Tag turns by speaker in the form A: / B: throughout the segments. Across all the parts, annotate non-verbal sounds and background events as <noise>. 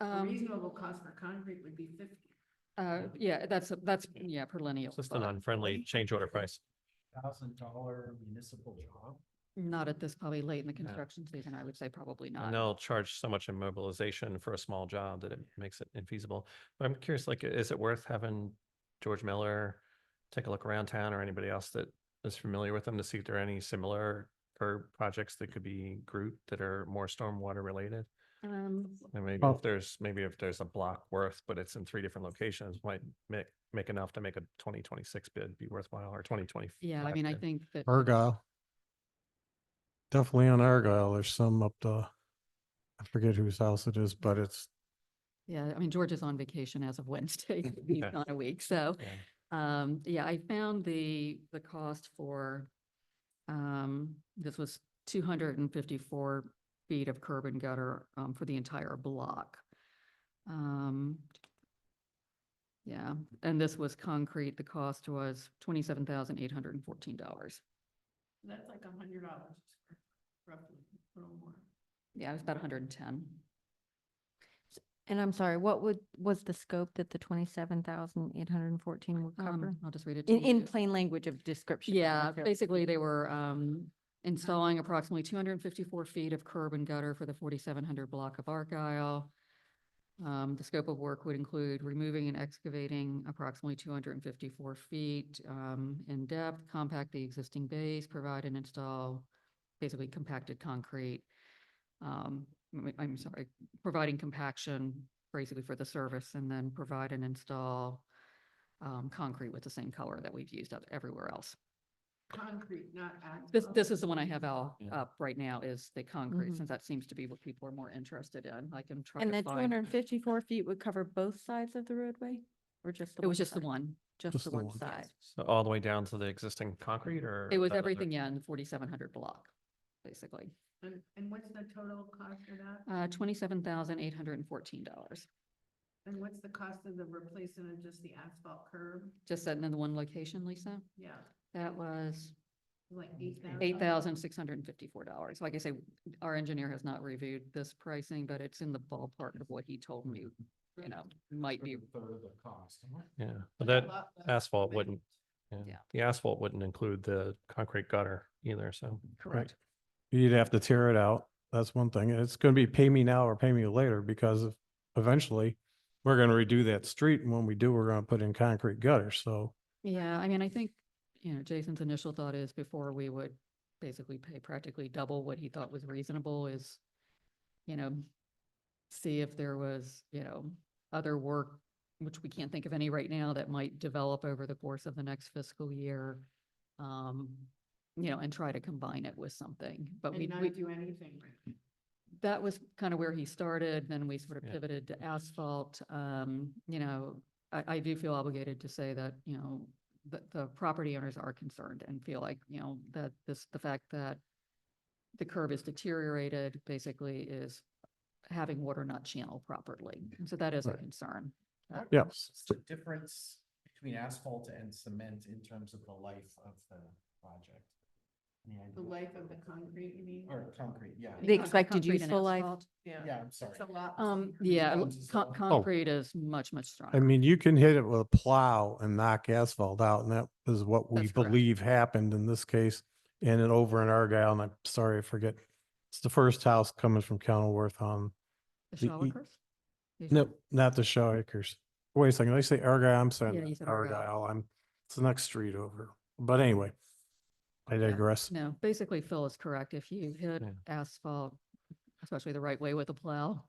A: A
B: Um,
A: reasonable cost for concrete would be fifty.
B: uh, yeah, that's, that's, yeah, per lineal.
C: It's just an
B: but
C: unfriendly change order price.
D: thousand dollar municipal job.
B: Not at this, probably late in the
C: Yeah.
B: construction season, I would say probably
C: And
B: not.
C: they'll charge so much in mobilization for a small job that it makes it infeasible. But I'm curious, like, is it worth having George Miller take a look around town or anybody else that is familiar with them to see if there are any similar curb projects that could be grouped that are more stormwater related?
B: Um,
C: And maybe
D: Well-
C: if there's, maybe if there's a block worth, but it's in three different locations, might make, make enough to make a twenty twenty-six bid be worthwhile or twenty twenty.
B: yeah, I mean, I think that,
E: Argyle. Definitely on Argyle. There's some up the, I forget whose house it is, but it's,
B: yeah, I mean, George is on vacation as of <laughs>
C: <laughs>
B: Wednesday, he's
C: Yeah.
B: gone a week, so. Um, yeah, I found the, the cost for, um, this was two hundred and fifty-four feet of curb and gutter, um, for the entire block. Um, yeah, and this was concrete. The cost was twenty-seven thousand eight hundred and fourteen dollars.
A: That's like a hundred dollars roughly, a little more.
B: Yeah, it was about hundred and ten.
F: And I'm sorry, what would, was the scope that the twenty-seven thousand eight hundred and fourteen would cover?
B: Um, I'll just read it. to
F: In,
B: you.
F: in plain language of description. I
B: Yeah,
F: feel-
B: basically they were um installing approximately two hundred and fifty-four feet of curb and gutter for the forty-seven hundred block of Argyle. Um, the scope of work would include removing and excavating approximately two hundred and fifty-four feet um in depth, compact the existing base, provide and install basically compacted concrete. Um, I'm- I'm sorry, providing compaction basically for the service and then provide and install um concrete with the same color that we've used oth- everywhere else.
A: Concrete, not asphalt.
B: This, this is the one I have out,
C: Yeah.
B: up right now is the concrete,
F: Mhm.
B: since that seems to be what people are more interested in. I can try
F: And
B: to
F: that two
B: find.
F: hundred and fifty-four feet would cover both sides of the roadway or just the?
B: It was just the
F: side?
B: one.
F: Just the one side.
C: So all the way down to the existing concrete or?
B: It was
C: that other-
B: everything, yeah, in the forty-seven hundred block, basically.
A: And, and what's the total cost of that?
B: Uh, twenty-seven thousand eight hundred and fourteen dollars,
A: And what's the cost of the replacement of just the asphalt curb?
B: just that in the one location, Lisa.
A: Yeah,
B: That was
A: like eight thousand.
B: eight thousand six hundred and fifty-four dollars. Like I say, our engineer has not reviewed this pricing, but it's in the ballpark of what he told me, you know, might be. Uh-huh.
D: Third of the cost. huh?
C: Yeah, but that asphalt wouldn't, yeah,
B: Yeah.
C: the asphalt wouldn't include the concrete gutter either, so.
E: Correct. you'd have to tear it out. That's one thing. It's going to be pay me now or pay me later because eventually we're going to redo that street. And when we do, we're going to put in concrete gutters. So
B: Yeah, I mean, I think, you know, Jason's initial thought is before we would basically pay practically double what he thought was reasonable is, you know, see if there was, you know, other work, which we can't think of any right now that might develop over the course of the next fiscal year. Um, you know, and try to combine it with something, but we,
A: And not
B: we,
A: do anything. right now.
B: that was kind of where he started, then we sort of
C: Yeah.
B: pivoted to asphalt. Um, you know, I, I do feel obligated to say that, you know, the, the property owners are concerned and feel like, you know, that this, the fact that the curb is deteriorated basically is having water not channeled properly. And so that is a
E: Right.
B: concern.
D: What-
E: Yeah.
D: what's The difference between asphalt and cement in terms of the life of the project. Any idea?
A: The life of the concrete, you mean?
D: Or concrete, yeah,
F: The
B: Con-
F: expected
B: concrete and
F: useful life.
B: asphalt.
D: yeah, I'm sorry.
A: It's a lot.
B: Um,
A: cheaper.
B: yeah,
D: Yeah,
B: l-
D: it's
B: con-
D: all-
B: concrete is much, much
E: I
B: stronger.
E: mean, you can hit it with a plow and knock asphalt out. And that is what we
B: That's correct.
E: believe happened in this case. And then over in Argyle, and I'm sorry, I forget. It's the first house coming from Kenilworth on
B: The
E: the
B: shower
E: e-
B: curse? The
E: No, not the Shaw Acres. Wait a second, did I say Argyle? I'm
B: Yeah, you
E: sorry,
B: said Argyle.
E: Argyle, I'm, it's the next street over. But anyway, I digress.
B: No, basically Phil is correct. If you hit
C: Yeah.
B: asphalt, especially the right way with a plow,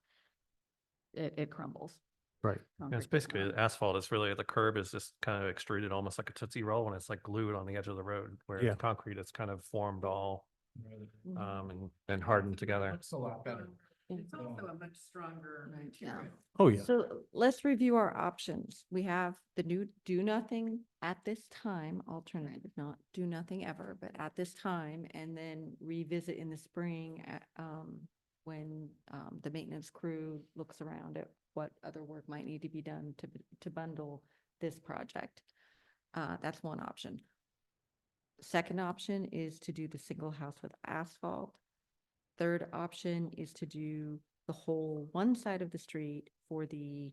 B: it, it crumbles.
E: Right.
C: Yeah,
B: Concrete
C: It's
B: does
C: basically
B: not.
C: the asphalt. It's really, the curb is just kind of extruded almost like a Tootsie Roll when it's like glued on the edge of the road. Where
E: Yeah.
C: the concrete, it's kind of formed all,
D: Really.
C: um, and, and hardened together.
D: Looks a lot better.
A: It's also a much stronger
B: Right, yeah.
A: material.
E: Oh, yeah.
F: So let's review our options. We have the new do nothing at this time alternative, not do nothing ever, but at this time, and then revisit in the spring at, um, when, um, the maintenance crew looks around at what other work might need to be done to, b- to bundle this project. Uh, that's one option. Second option is to do the single house with asphalt. Third option is to do the whole one side of the street for the